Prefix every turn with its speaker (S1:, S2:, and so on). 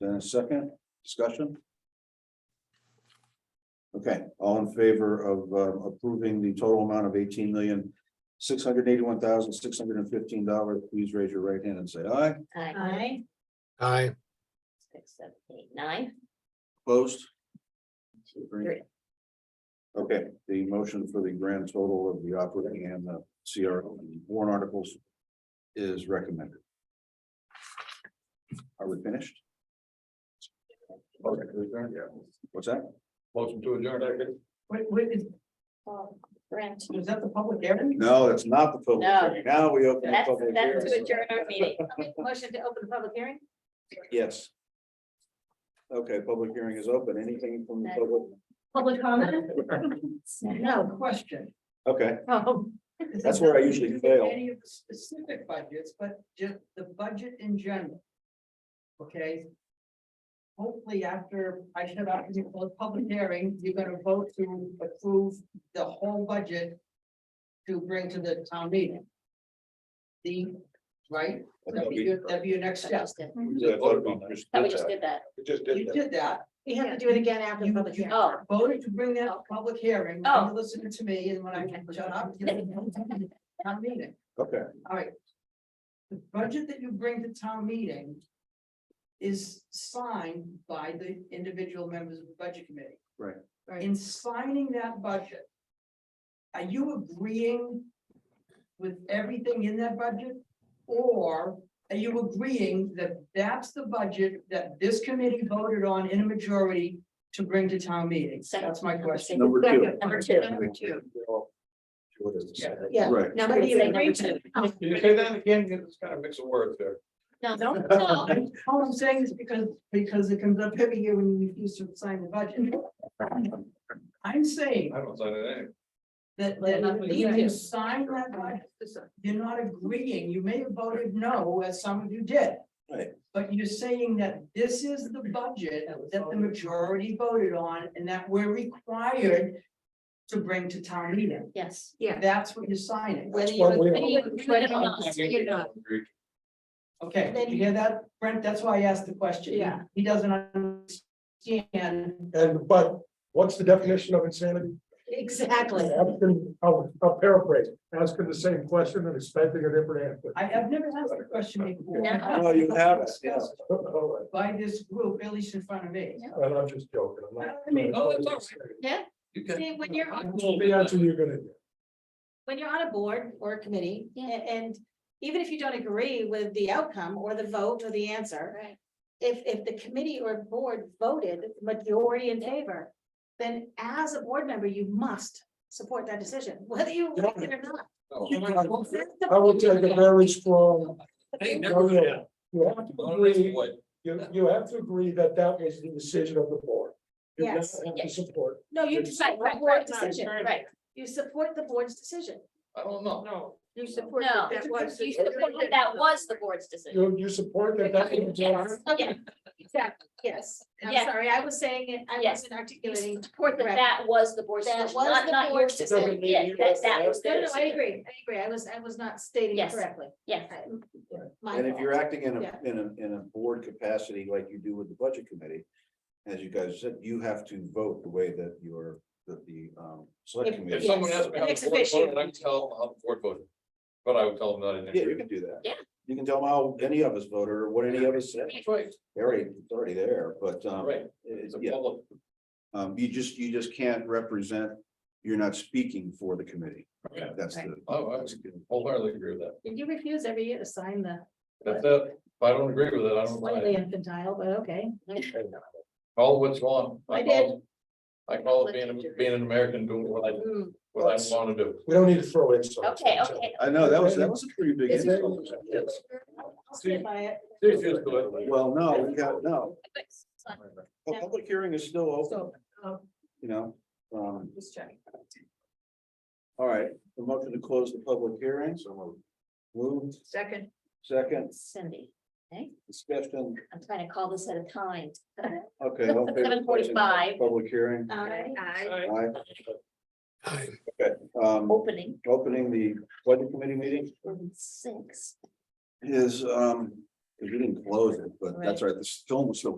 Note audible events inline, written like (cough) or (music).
S1: Then a second discussion? Okay, all in favor of uh, approving the total amount of eighteen million, six hundred eighty-one thousand, six hundred and fifteen dollars, please raise your right hand and say aye.
S2: Aye.
S3: aye,
S2: Six, seven, eight, nine,
S1: Opposed?
S2: two, three.
S1: Okay, the motion for the grand total of the operating and the CR warrant articles is recommended. Are we finished? Okay, we're done, yeah. What's that?
S4: Motion to adjourn, I guess.
S5: Wait, wait, is,
S2: Oh, Brent,
S5: was that the public hearing?
S1: No, that's not the public.
S2: No.
S1: hearing. Now we open. the
S2: that's,
S1: public
S2: that's to
S1: hearing.
S2: adjourn our meeting. I'll make a Motion to open the public hearing?
S1: Yes. Okay, public hearing is open. Anything from the public?
S2: Public comment?
S5: No question.
S1: Okay,
S2: Oh,
S5: Is
S1: That's
S5: it-
S1: where I usually
S5: is it
S1: fail.
S5: Any of the specific budgets, but just the budget in general. Okay? Hopefully after I shut off the closed public hearing, you're gonna vote to approve the whole budget to bring to the town meeting. The, right? That'd be, your- that'd be your next
S2: so
S5: step.
S2: just did-
S1: Yeah, I thought we just
S2: oh, we
S1: did
S2: just
S1: that.
S2: did that.
S4: We just did
S5: You
S4: that.
S5: did that.
S6: We have to do it again after the
S5: You
S6: public hearing.
S2: Oh,
S5: voted to bring that public hearing,
S2: Oh.
S5: you listened to me, and when I shut up.
S6: (laughs)
S5: you know, Town meeting,
S1: Okay,
S5: all right. The budget that you bring to town meeting. Is signed by the individual members of the budget committee.
S1: Right.
S6: Right.
S5: In signing that budget. Are you agreeing? With everything in that budget? Or are you agreeing that that's the budget that this committee voted on in a majority to bring to town meeting?
S2: Second.
S5: That's my question.
S1: number two.
S2: Number two.
S6: Number two.
S1: What is this?
S4: Yeah.
S6: Yeah.
S1: Right.
S6: Now,
S2: Say number
S6: we
S2: two.
S4: Can you say that again? It's kind of mix of words there.
S2: No,
S5: No,
S6: (laughs)
S2: no.
S5: all I'm saying is because, because it comes up every year when you refuse to sign the budget. I'm saying
S4: I don't sign it anyway.
S5: that,
S2: Well,
S5: that
S2: not when you
S5: if
S2: do.
S5: you sign that budget, you're not agreeing, you may have voted no, as some of you did.
S1: Right.
S5: But you're saying that this is the budget that the majority voted on and that we're required to bring to town meeting.
S2: Yes.
S6: Yeah.
S5: That's what you're signing.
S6: Whether you
S4: That's what we-
S6: agree with it or not, you're not.
S5: Okay, did you hear that, Brent? That's why I asked the question.
S6: Yeah.
S5: He doesn't understand
S7: And but what's the definition of insanity?
S6: Exactly.
S7: Asking, I'll I'll paraphrase, asking the same question and expecting a different answer.
S5: I have never asked a question before.
S2: No.
S1: No, you have it, yes.
S7: All right,
S5: By this group, at least in front of me.
S7: (laughs) And I'm just joking. I'm not-
S5: I mean,
S4: oh, it's all right. You can-
S6: See, when you're on,
S7: The answer you're gonna get.
S6: when you're on a board or a committee, a- and even if you don't agree with the outcome or the vote or the answer,
S2: Right.
S6: if, if the committee or board voted majority in favor, then as a board member, you must support that decision, (laughs) whether you like it or not.
S7: No.
S6: That's the-
S7: I will take a very strong.
S4: Hey,
S7: No,
S4: never-
S7: no. You have to agree,
S4: What?
S7: you you have to agree that that was the decision of the board. You not
S6: Yes.
S7: Have to support.
S6: No, you
S7: It's-
S6: decide, right, right, decision, right. You support the board's decision.
S4: I don't know.
S6: You
S2: No,
S6: support.
S2: you supported that was the board's decision.
S7: You you support that that was. the
S2: Yes, yeah,
S6: Exactly, yes. I'm
S2: Yeah.
S6: sorry, I was saying it, I
S2: Yes.
S6: wasn't
S2: You
S6: articulating.
S2: support that that was the board's
S6: That
S2: decision,
S6: was
S2: not,
S6: the
S2: not your
S6: board's
S2: decision.
S7: decision.
S2: Yeah, that, that was
S6: No,
S2: their
S6: no, I
S2: decision.
S6: agree, I agree, I was, I was not stating it
S2: Yes.
S6: correctly.
S2: Yeah.
S6: I- my
S1: And if
S6: fault.
S1: you're acting in a,
S6: Yeah.
S1: in a, in a board capacity like you do with the budget committee, as you guys said, you have to vote the way that you're, that the, um, select
S6: If-
S4: If
S1: committee.
S6: yeah.
S4: someone asked me how
S6: Ex
S4: the board voted,
S6: officio.
S4: I would tell them how the board voted. But I would tell them that I didn't.
S1: Yeah, you
S4: agree.
S1: can do that.
S2: Yeah.
S1: You can tell them how any of us voted or what any of us said.
S4: That's right,
S1: Already, it's already there, but, um,
S4: right.
S1: it-
S4: It's a
S1: yeah,
S4: public,
S1: um, you just, you just can't represent, you're not speaking for the committee.
S4: Yeah.
S1: That's the.
S4: Oh, I wholeheartedly agree with that.
S6: And you refuse every year to sign the
S4: That's it. If I don't agree with it, I don't. sign
S6: slightly
S4: it.
S6: infantile, but okay.
S4: Call it what's wrong.
S6: I
S4: call it- I call it being, a- being an American, doing what I,
S6: Mm,
S4: what I want to do.
S7: We don't need to throw in.
S2: Okay, okay.
S1: I know, that was, that was a pretty big.
S7: Is it-
S1: insult.
S6: I'll stand by it.
S4: It's just good.
S1: Well, no, we got, no,
S2: But-
S1: a public hearing is still open,
S6: So, um,
S1: you know, um,
S6: just checking.
S1: all right, the motion to close the public hearing, so moved. moved.
S5: Second.
S1: Second,
S2: Cindy,
S1: discussion,
S2: I'm trying to call this at a time.
S1: okay. all in favor of closing
S2: 7:45.
S1: Public hearing,
S6: Aye.
S1: aye,
S3: aye.
S6: Oh.
S1: um,
S2: Opening
S1: opening the budget committee meeting
S2: room six.
S1: is, um, we didn't close it, but that's all right, the film was still